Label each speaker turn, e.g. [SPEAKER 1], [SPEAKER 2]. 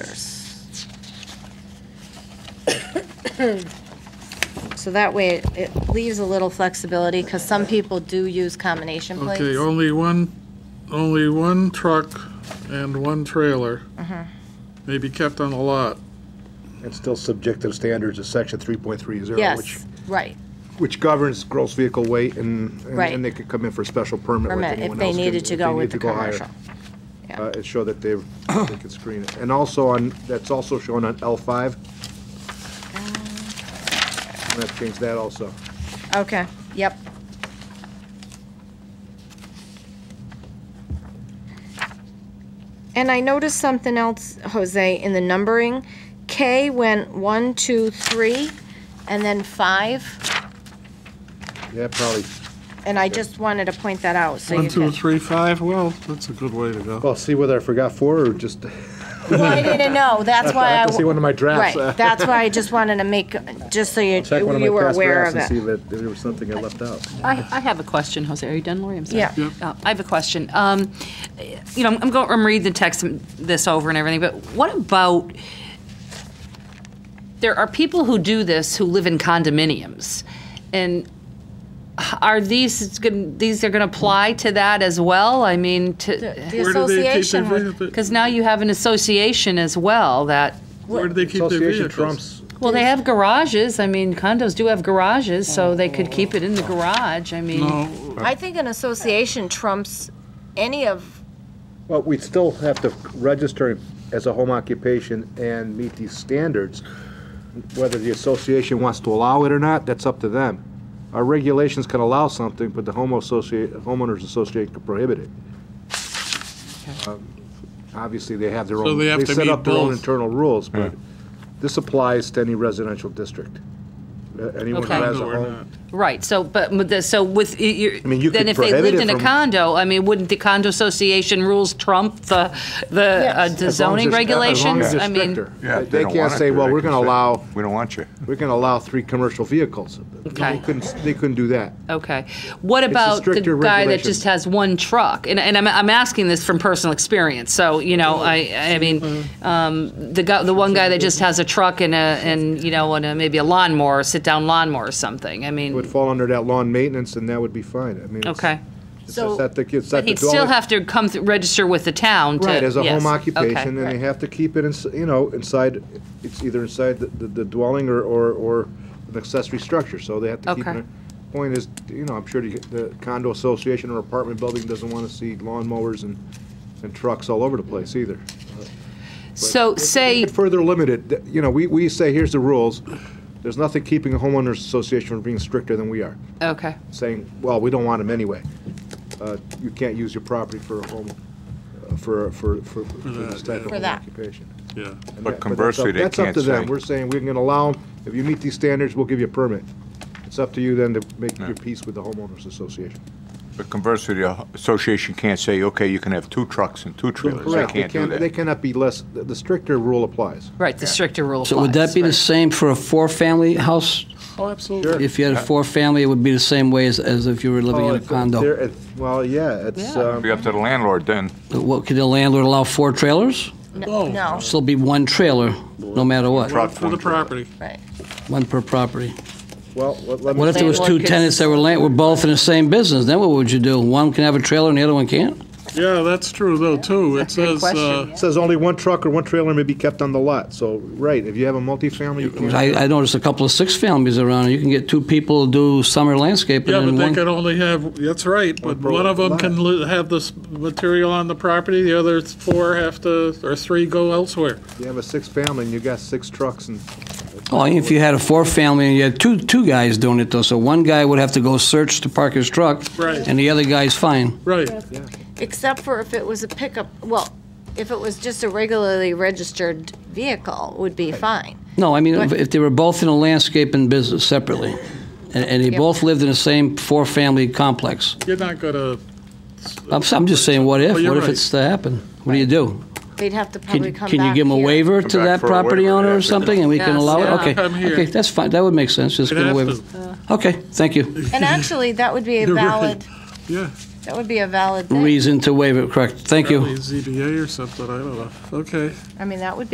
[SPEAKER 1] trailers. So that way, it- it leaves a little flexibility, because some people do use combination plates.
[SPEAKER 2] Okay,
[SPEAKER 3] oh,
[SPEAKER 2] only one, only one truck and one trailer
[SPEAKER 1] Uh-huh.
[SPEAKER 2] may be kept on the lot.
[SPEAKER 3] And still subject to the standards of section 3.30. which-
[SPEAKER 1] Yes, right,
[SPEAKER 3] Which governs gross vehicle weight, and, and-
[SPEAKER 1] Right.
[SPEAKER 3] and they could come in for a special permit like
[SPEAKER 1] permit, if
[SPEAKER 3] anyone
[SPEAKER 1] they
[SPEAKER 3] else can,
[SPEAKER 1] needed to
[SPEAKER 3] if
[SPEAKER 1] go
[SPEAKER 3] they
[SPEAKER 1] with
[SPEAKER 3] need
[SPEAKER 1] the
[SPEAKER 3] to go higher.
[SPEAKER 1] commercial. Yeah.
[SPEAKER 3] Uh, It showed that they, they could screen it. And also on, that's also shown on L5.
[SPEAKER 1] Uh.
[SPEAKER 3] I'm gonna change that also.
[SPEAKER 1] Okay, yep. And I noticed something else, Jose, in the numbering. K went one, two, three, and then five,
[SPEAKER 3] Yeah, probably,
[SPEAKER 1] and I just wanted to point that out, so
[SPEAKER 2] One,
[SPEAKER 1] you
[SPEAKER 2] two,
[SPEAKER 1] could.
[SPEAKER 2] three, five, well, that's a good way to go.
[SPEAKER 3] well, see whether I forgot four or just,
[SPEAKER 1] Well, I didn't know, that's
[SPEAKER 3] I
[SPEAKER 1] why I,
[SPEAKER 3] have to see
[SPEAKER 1] w-
[SPEAKER 3] one of my drafts. uh,
[SPEAKER 1] Uh, right, that's why I just wanted to make, just so you,
[SPEAKER 3] Check one of
[SPEAKER 1] you
[SPEAKER 3] my
[SPEAKER 1] were
[SPEAKER 3] past
[SPEAKER 1] aware of
[SPEAKER 3] drafts and see
[SPEAKER 1] it.
[SPEAKER 3] that there was something I left out.
[SPEAKER 4] I, I have a question, Jose. Are you done, Lori? I'm sorry.
[SPEAKER 1] Yeah. Yep.
[SPEAKER 4] Uh, I have a question. Um, You know, I'm going, I'm reading the text, and this over and everything, but what about, there are people who do this who live in condominiums, and are these, it's gonna- these are going to apply to that as well? I mean, to,
[SPEAKER 1] The
[SPEAKER 2] Where do they keep
[SPEAKER 1] association,
[SPEAKER 2] their
[SPEAKER 1] was-
[SPEAKER 2] vehicles?
[SPEAKER 4] because now you have an association as well that,
[SPEAKER 2] Where do they keep their
[SPEAKER 3] Association
[SPEAKER 2] vehicles?
[SPEAKER 3] trumps,
[SPEAKER 4] well, they have garages. I mean, condos do have garages, so they could keep it in the garage. I mean.
[SPEAKER 2] No,
[SPEAKER 1] I think an association trumps any of,
[SPEAKER 3] well, we'd still have to register as a home occupation and meet these standards. Whether the association wants to allow it or not, that's up to them. Our regulations can allow something, but the home associate, homeowners association can prohibit it. Um, Obviously, they have their
[SPEAKER 2] So
[SPEAKER 3] own,
[SPEAKER 2] they have
[SPEAKER 3] they
[SPEAKER 2] to
[SPEAKER 3] set
[SPEAKER 2] meet
[SPEAKER 3] up their own
[SPEAKER 2] both.
[SPEAKER 3] internal rules, but this applies to any residential district. Uh, Anyone who
[SPEAKER 4] Okay.
[SPEAKER 3] has a
[SPEAKER 2] No, we're not.
[SPEAKER 3] home.
[SPEAKER 4] Right, so, but, with the- so with, y- you're-
[SPEAKER 3] I mean, you
[SPEAKER 4] then
[SPEAKER 3] could
[SPEAKER 4] if they
[SPEAKER 3] prohibit
[SPEAKER 4] lived
[SPEAKER 3] it
[SPEAKER 4] in a
[SPEAKER 3] from-
[SPEAKER 4] condo, I mean, wouldn't the condo association rules trump the, the
[SPEAKER 3] As
[SPEAKER 4] uh, the
[SPEAKER 3] long as
[SPEAKER 4] zoning
[SPEAKER 3] it's- as long
[SPEAKER 4] regulations?
[SPEAKER 3] as it's
[SPEAKER 4] I mean,
[SPEAKER 3] stricter.
[SPEAKER 5] Yeah,
[SPEAKER 3] They-
[SPEAKER 5] if
[SPEAKER 3] They
[SPEAKER 5] don't
[SPEAKER 3] can't
[SPEAKER 5] want it
[SPEAKER 3] say,
[SPEAKER 5] to,
[SPEAKER 3] well,
[SPEAKER 5] they
[SPEAKER 3] we're
[SPEAKER 5] can
[SPEAKER 3] going to
[SPEAKER 5] say,
[SPEAKER 3] allow,
[SPEAKER 5] We don't want you.
[SPEAKER 3] we're going to allow three commercial vehicles. They
[SPEAKER 4] Okay.
[SPEAKER 3] couldn't, they couldn't do that.
[SPEAKER 4] okay. What about the
[SPEAKER 3] stricter
[SPEAKER 4] guy that
[SPEAKER 3] regulation.
[SPEAKER 4] just has one truck? And, and I'm, I'm asking this from personal experience, so, you know, I, I mean,
[SPEAKER 3] Mm-hmm.
[SPEAKER 4] um, the guy, the one guy that just has a truck and a, and, you know, and a, maybe a lawnmower, a sit-down lawnmower or something, I
[SPEAKER 3] It would
[SPEAKER 4] mean,
[SPEAKER 3] fall under that lawn maintenance, and that would be fine. I mean, it's-
[SPEAKER 4] okay.
[SPEAKER 3] it's
[SPEAKER 1] So-
[SPEAKER 3] that the- it's that the
[SPEAKER 4] He'd still
[SPEAKER 3] dwelling-
[SPEAKER 4] have to come, th- register with the town to.
[SPEAKER 3] Right, as a
[SPEAKER 4] yes,
[SPEAKER 3] home
[SPEAKER 4] okay,
[SPEAKER 3] occupation, and they
[SPEAKER 4] right.
[SPEAKER 3] have to keep it, ins- you know, inside, it's either inside the- the the dwelling or, or or an accessory structure, so they have to keep
[SPEAKER 4] Okay.
[SPEAKER 3] it. Point is, you know, I'm sure the- the condo association or apartment building doesn't want to see lawnmowers and, and trucks all over the place
[SPEAKER 4] Mm.
[SPEAKER 3] either.
[SPEAKER 4] So say,
[SPEAKER 3] It Further limited, th- you know, we, we say, here's the rules. There's nothing keeping a homeowners association from being stricter than we are,
[SPEAKER 4] okay.
[SPEAKER 3] saying, well, we don't want them anyway. Uh, You can't use your property for a home, uh, for, for, for for this type of
[SPEAKER 1] For
[SPEAKER 3] home
[SPEAKER 1] that.
[SPEAKER 3] occupation.
[SPEAKER 2] yeah.
[SPEAKER 3] And
[SPEAKER 5] But
[SPEAKER 3] that- that's
[SPEAKER 5] conversely,
[SPEAKER 3] up-
[SPEAKER 5] they
[SPEAKER 3] That's up
[SPEAKER 5] can't
[SPEAKER 3] to them.
[SPEAKER 5] say-
[SPEAKER 3] We're saying, we're gonna allow, 'em. if you meet these standards, we'll give you a permit. It's up to you then to make your peace with the homeowners association.
[SPEAKER 5] But conversely, the association can't say, okay, you can have two trucks and two trailers. They
[SPEAKER 3] Correct.
[SPEAKER 5] can't do
[SPEAKER 3] They
[SPEAKER 5] that.
[SPEAKER 3] cannot be less, the the stricter rule applies.
[SPEAKER 4] Right, the stricter rule
[SPEAKER 6] So would that be the
[SPEAKER 4] applies,
[SPEAKER 6] same for a four-family house?
[SPEAKER 2] Oh, absolutely.
[SPEAKER 6] If you had a four-family, it would be the same way as, as if you were living
[SPEAKER 2] Oh,
[SPEAKER 3] Well,
[SPEAKER 6] in a
[SPEAKER 3] if- if they're-
[SPEAKER 6] condo.
[SPEAKER 3] if- Well, yeah, it's,
[SPEAKER 4] Yeah.
[SPEAKER 3] um,
[SPEAKER 5] Be up to the landlord then.
[SPEAKER 6] What, could the landlord allow four trailers?
[SPEAKER 1] no, no,
[SPEAKER 6] Still be one trailer, no matter what,
[SPEAKER 5] Right.
[SPEAKER 2] One for the property.
[SPEAKER 1] right.
[SPEAKER 6] one per property.
[SPEAKER 3] well, let let me.
[SPEAKER 6] What if there was two
[SPEAKER 4] Landlord could-
[SPEAKER 6] tenants that were, la- were both in the same business? Then what would you do? One can have a trailer and the other one can't?
[SPEAKER 2] Yeah, that's true though, too. It says, uh,
[SPEAKER 4] question.
[SPEAKER 3] It Says only one truck or one trailer may be kept on the lot, so, right, if you have a multifamily, you can't.
[SPEAKER 6] I, I noticed a couple of six families around, you can get two people to do summer landscaping
[SPEAKER 2] yeah, but
[SPEAKER 6] and
[SPEAKER 2] they can
[SPEAKER 6] one.
[SPEAKER 2] only have, that's right, but
[SPEAKER 3] One per
[SPEAKER 2] one of them
[SPEAKER 3] lot.
[SPEAKER 2] can li- have this material on the property, the other four have to, or three go elsewhere.
[SPEAKER 3] If you have a six-family and you got six trucks and,
[SPEAKER 6] Oh, if you had a four-family and you had two, two guys doing it though, so one guy would have to go search to park his truck.
[SPEAKER 2] Right.
[SPEAKER 6] And the other guy's fine.
[SPEAKER 2] Right.
[SPEAKER 1] Except for if it was a pickup, well, if it was just a regularly registered vehicle, would be fine.
[SPEAKER 6] No, I mean,
[SPEAKER 1] Right.
[SPEAKER 6] if- if they were both in a landscaping business separately, and, and they
[SPEAKER 1] Yep.
[SPEAKER 6] both lived in the same four-family complex,
[SPEAKER 2] You're not gonna.
[SPEAKER 6] I'm, s- I'm just saying, what if?
[SPEAKER 2] Oh, you're
[SPEAKER 6] What if
[SPEAKER 2] right.
[SPEAKER 6] it's to happen? What do you do?
[SPEAKER 1] They'd have to
[SPEAKER 6] Can,
[SPEAKER 1] probably
[SPEAKER 6] you-
[SPEAKER 1] come back
[SPEAKER 6] can you give them a
[SPEAKER 1] here.
[SPEAKER 6] waiver
[SPEAKER 5] Come
[SPEAKER 6] to
[SPEAKER 5] back
[SPEAKER 6] that
[SPEAKER 5] for a
[SPEAKER 6] property
[SPEAKER 5] waiver,
[SPEAKER 6] owner
[SPEAKER 5] yeah.
[SPEAKER 6] or something, and we can
[SPEAKER 4] Yes,
[SPEAKER 6] allow
[SPEAKER 4] yeah.
[SPEAKER 6] it? Okay,
[SPEAKER 2] Come here.
[SPEAKER 6] okay, that's fine, that would make sense, just
[SPEAKER 2] You'd
[SPEAKER 6] give a
[SPEAKER 2] have
[SPEAKER 6] waiver.
[SPEAKER 2] to.
[SPEAKER 6] Okay, thank you.
[SPEAKER 1] And actually, that would be a
[SPEAKER 2] You're right.
[SPEAKER 1] valid
[SPEAKER 2] Yeah,
[SPEAKER 1] That would be a valid thing.
[SPEAKER 6] reason to waive it, correct. Thank you.
[SPEAKER 2] Probably ZBA or something, I don't know. Okay.
[SPEAKER 1] I mean, that would be